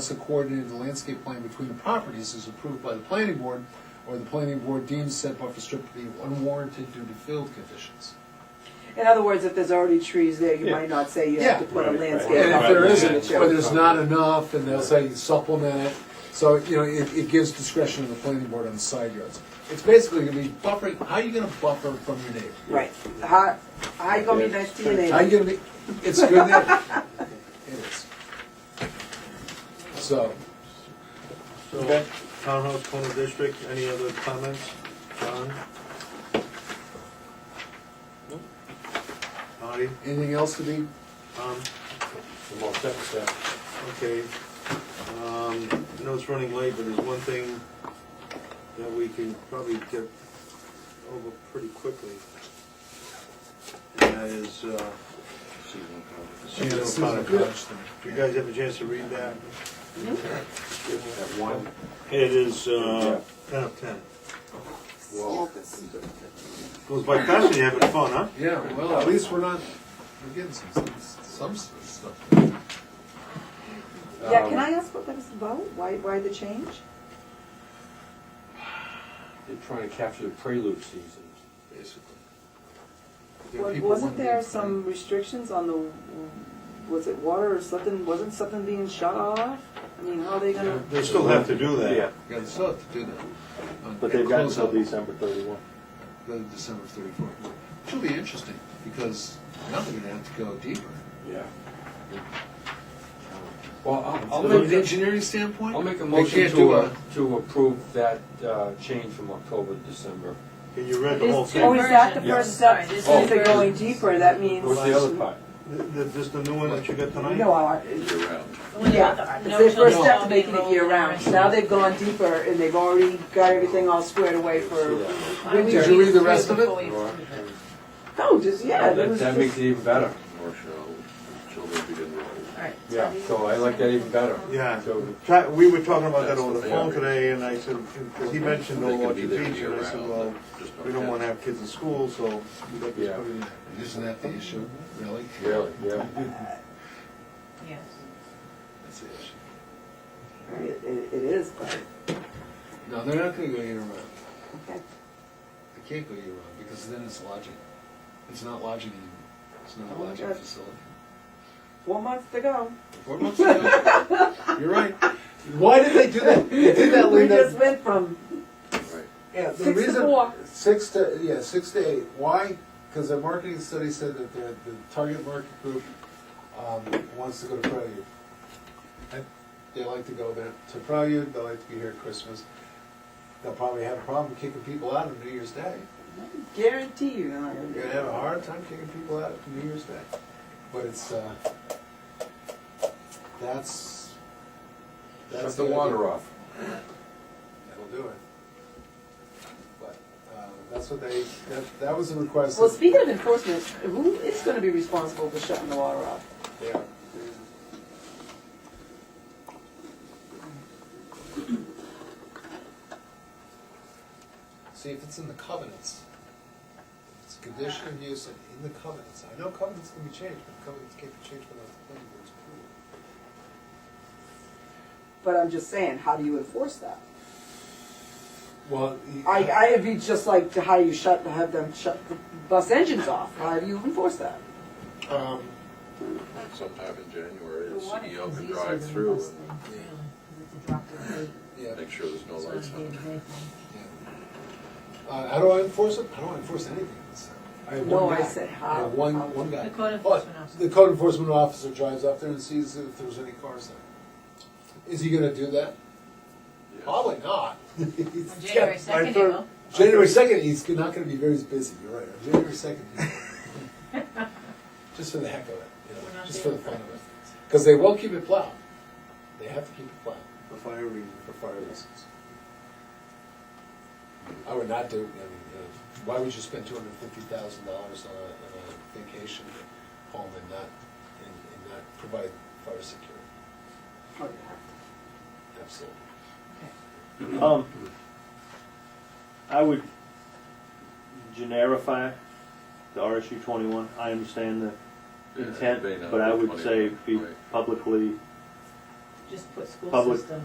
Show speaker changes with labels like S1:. S1: Unless a coordinated landscape plan between the properties is approved by the planning board, or the planning board deems said buffer strip to be unwarranted due to field conditions.
S2: In other words, if there's already trees there, you
S3: Yeah.
S2: might not say you
S1: Yeah.
S2: have to put a
S3: Right, right.
S1: And
S2: landscape.
S1: if there
S2: buffer
S3: isn't,
S1: isn't,
S2: between
S1: or
S2: the two.
S1: there's not enough, and they'll say supplement it, so, you know, it, it gives discretion to the planning board on the side yards. It's basically gonna be buffering, how are you gonna buffer from your neighbor?
S2: Right, how, how you gonna be nice to your
S1: How you
S2: neighbor?
S1: gonna be, it's good that, it is. So,
S3: So,
S1: Okay.
S3: townhouse corner district, any other comments, John? Marty,
S1: anything else to be,
S3: Tom? Okay, um, I know it's running late, but there's one thing that we can probably get over pretty quickly. And that is, uh, seasonal
S1: This is a
S3: powder
S1: good-
S3: cottage. You guys have a chance to read that?
S4: At one,
S3: It is, uh, ten of ten.
S4: well,
S3: Goes by fast when you're having fun, huh?
S1: yeah, well, at least we're not, we're getting some, some stuff.
S2: Yeah, can I ask what that was about? Why, why the change?
S4: they're trying to capture the prelude season, basically.
S1: Yeah,
S2: Wa-
S1: people
S2: Wasn't
S1: want to
S2: there
S1: be-
S2: some restrictions on the, was it water or something, wasn't something being shut off? I mean, how are they gonna,
S3: They still have to do that.
S5: Yeah,
S1: Yeah, they still have to do that. Uh,
S5: but they've got until
S1: these
S5: December thirty-one.
S1: The December thirty-fourth, which will be interesting, because now they're gonna have to go deeper.
S4: Yeah. Well, I'll, I'll
S1: From an
S4: make,
S1: engineering standpoint?
S4: I'll make a
S1: they
S4: motion
S1: can't do
S4: to, uh, to approve that, uh, change from October to December.
S3: Can you read
S6: It
S3: the
S6: is
S3: whole
S6: two
S2: oh,
S3: thing?
S2: is that the
S6: Yeah.
S2: first step?
S6: Sorry, this
S2: Since they're
S4: is-
S2: going deeper, that means.
S4: What's the other part?
S3: Th- th- Just the new one that you got tonight?
S2: No, I, Yeah, it's
S6: No
S2: their
S6: children
S2: first step
S6: will
S2: to
S6: be
S2: making it
S6: enrolled
S2: year
S6: in
S2: round.
S6: the
S2: Now they've gone deeper and they've already got everything all squared away for,
S6: I
S1: Did you read the rest of it?
S6: before we-
S4: Or-
S2: no, just, yeah, that
S4: That,
S2: was
S4: that makes
S2: just,
S4: it even better,
S6: Alright.
S4: yeah, so I like that even better.
S3: Yeah.
S4: So,
S3: Try- We were talking about that over the phone today, and I said, because he mentioned the Orchard Beach, and I said, well, we don't want to have kids in school, so we got this
S4: Yeah.
S3: put in.
S4: uh,
S1: Isn't that the issue, really?
S4: really, yeah.
S6: Yes.
S1: That's the issue.
S2: it, it it is, but,
S1: No, they're not gonna go year round.
S2: okay.
S1: They can't go year round, because then it's lodging. It's not lodging anymore. It's not a
S2: Oh,
S1: lodging
S2: that's-
S1: facility.
S2: Four months to go.
S1: Four months ago, you're right. Why did they do that? They did that,
S2: We
S1: Linda.
S2: just went from
S1: Yeah, the
S2: six to
S1: reason,
S2: four.
S1: Six to, yeah, six to eight. Why? Because the marketing study said that the, the target market group, um, wants to go to Prelude. And They like to go there to Prelude, they like to be here at Christmas. They'll probably have a problem kicking people out on New Year's Day.
S2: Guarantee you, uh, they're not gonna do
S1: You're gonna have a hard time kicking people out on New Year's Day. But it's, uh, that's,
S4: Shut
S1: that's.
S4: the
S1: idea.
S4: water off.
S1: That'll do it. But, uh, that's what they, that, that was a request.
S2: Well, speaking of enforcement, who is gonna be responsible for shutting the water off?
S1: Yeah. See, if it's in the covenants, if it's a condition of use and in the covenants, I know covenants can be changed, but covenants can't be changed without the planning board's approval.
S2: But I'm just saying, how do you enforce that?
S1: Well.
S2: I, I, it'd be just like to how you shut, have them shut the bus engines off. How do you enforce that?
S1: Um,
S7: sometime in January,
S6: The
S7: the
S6: one is
S7: CEO can
S6: easier
S7: drive
S6: than
S7: through
S6: most
S7: and
S6: things, really, 'cause it's a drop-in rate,
S1: yeah,
S7: make sure there's no
S6: it's not
S7: lights
S6: a
S7: on.
S6: day-to-day thing.
S1: yeah. Uh, how do I enforce it? I don't enforce anything in this town. I have
S2: No,
S1: one
S2: I
S1: guy.
S2: said
S1: I
S2: how.
S1: have one, one guy.
S6: The code
S1: But
S6: enforcement officer.
S1: the code enforcement officer drives up there and sees if there's any cars there. Is he gonna do that?
S7: Yeah.
S1: Probably not.
S6: On January second, he will.
S1: January second, he's not gonna be very busy, you're right, on January second. Just for the heck of it, you
S6: We're
S1: know,
S6: not
S1: just for the
S6: doing
S1: fun of it. Because they will keep it plowed. They have to keep it plowed
S3: For fire reasons.
S1: for fire reasons. I would not do, I mean, you know, why would you spend two hundred and fifty thousand dollars on a, on a vacation home and not, and, and not provide fire security?
S2: Oh, yeah.
S1: Absolutely.
S5: Um, I would generify the RSU twenty-one. I understand the
S7: Yeah,
S5: intent,
S7: it may not
S5: but I
S7: be
S5: would say
S7: 21,
S5: be
S7: right.
S5: publicly
S6: just put school
S5: Public
S6: system.